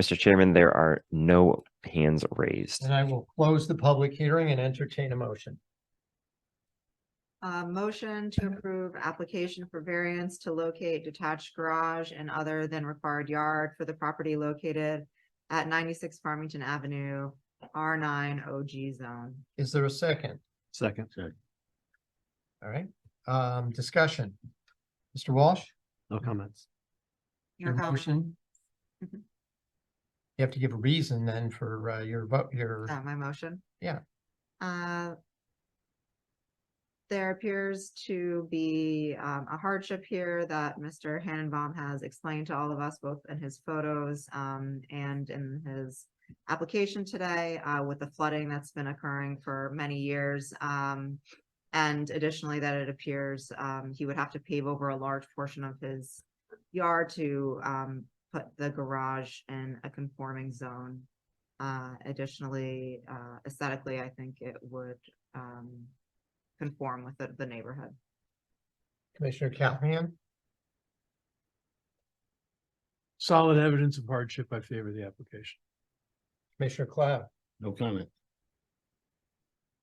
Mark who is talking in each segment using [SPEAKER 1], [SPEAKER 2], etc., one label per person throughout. [SPEAKER 1] Mr. Chairman, there are no hands raised.
[SPEAKER 2] And I will close the public hearing and entertain a motion.
[SPEAKER 3] Uh, motion to approve application for variance to locate detached garage and other than required yard for the property located at ninety-six Farmington Avenue, R nine OG zone.
[SPEAKER 2] Is there a second?
[SPEAKER 4] Second.
[SPEAKER 2] All right, um, discussion. Mr. Walsh?
[SPEAKER 4] No comments.
[SPEAKER 3] Your comment?
[SPEAKER 2] You
[SPEAKER 3] Mhm.
[SPEAKER 2] have to give a reason then for uh, your vote, your,
[SPEAKER 3] Uh, my motion?
[SPEAKER 2] Yeah.
[SPEAKER 3] Uh. There appears to be um a hardship here that Mr. Hannenbaum has explained to all of us, both in his photos um and in his. Application today uh with the flooding that's been occurring for many years um. And additionally, that it appears um he would have to pave over a large portion of his yard to um put the garage in a conforming zone. Uh, additionally, uh, aesthetically, I think it would, um, conform with the, the neighborhood.
[SPEAKER 2] Commissioner Callahan?
[SPEAKER 4] Solid evidence of hardship. I favor the application.
[SPEAKER 2] Commissioner Cloud?
[SPEAKER 5] No comment.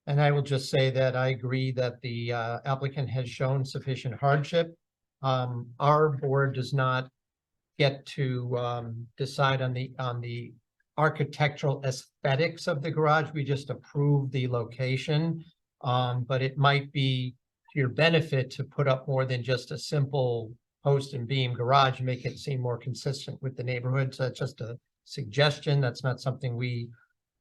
[SPEAKER 2] And I will just say that I agree that the uh, applicant has shown sufficient hardship. Um, our board does not get to um, decide on the, on the architectural aesthetics of the garage. We just approve the location. Um, but it might be to your benefit to put up more than just a simple post and beam garage, make it seem more consistent with the neighborhood. So that's just a suggestion. That's not something we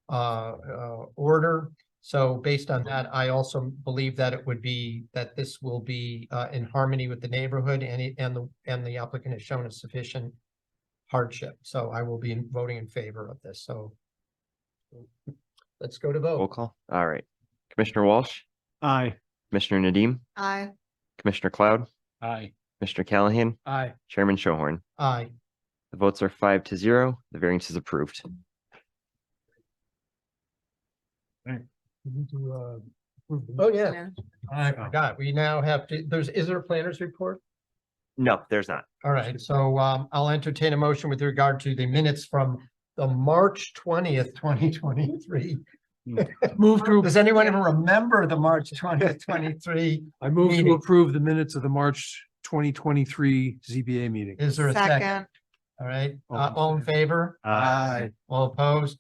[SPEAKER 2] uh, uh, order. So based on that, I also believe that it would be, that this will be uh in harmony with the neighborhood and it, and the, and the applicant has shown a sufficient hardship, so I will be in- voting in favor of this, so. Let's go to
[SPEAKER 1] Roll
[SPEAKER 2] vote.
[SPEAKER 1] call. All right. Commissioner Walsh,
[SPEAKER 4] Aye.
[SPEAKER 1] Commissioner Nadeem,
[SPEAKER 3] I,
[SPEAKER 1] Commissioner Cloud,
[SPEAKER 4] Aye.
[SPEAKER 1] Mr. Callahan,
[SPEAKER 4] Aye.
[SPEAKER 1] Chairman Shohorn.
[SPEAKER 2] Aye.
[SPEAKER 1] The votes are five to zero. The variance is approved.
[SPEAKER 4] uh,
[SPEAKER 2] Oh, yeah,
[SPEAKER 4] Aye.
[SPEAKER 2] I forgot. We now have to, there's, is there a planner's report?
[SPEAKER 1] No, there's not.
[SPEAKER 2] All right, so um I'll entertain a motion with regard to the minutes from the March twentieth, twenty twenty-three.
[SPEAKER 4] Move to,
[SPEAKER 2] Does anyone even remember the March twentieth, twenty-three?
[SPEAKER 4] I move to
[SPEAKER 2] Meeting.
[SPEAKER 4] approve the minutes of the March twenty twenty-three ZBA meeting.
[SPEAKER 2] Is there a second?
[SPEAKER 3] second,
[SPEAKER 2] All right,
[SPEAKER 4] All
[SPEAKER 2] uh,
[SPEAKER 4] in
[SPEAKER 2] all in favor?
[SPEAKER 4] Aye.
[SPEAKER 2] All opposed?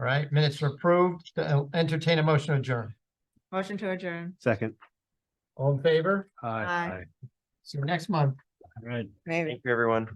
[SPEAKER 2] All right, minutes are approved. I'll Entertain a motion to adjourn.
[SPEAKER 3] motion to adjourn.
[SPEAKER 4] Second.
[SPEAKER 2] All in favor?
[SPEAKER 4] Aye.
[SPEAKER 3] Aye.
[SPEAKER 2] See you next month.
[SPEAKER 5] All right.
[SPEAKER 3] Maybe.
[SPEAKER 1] Thank you, everyone.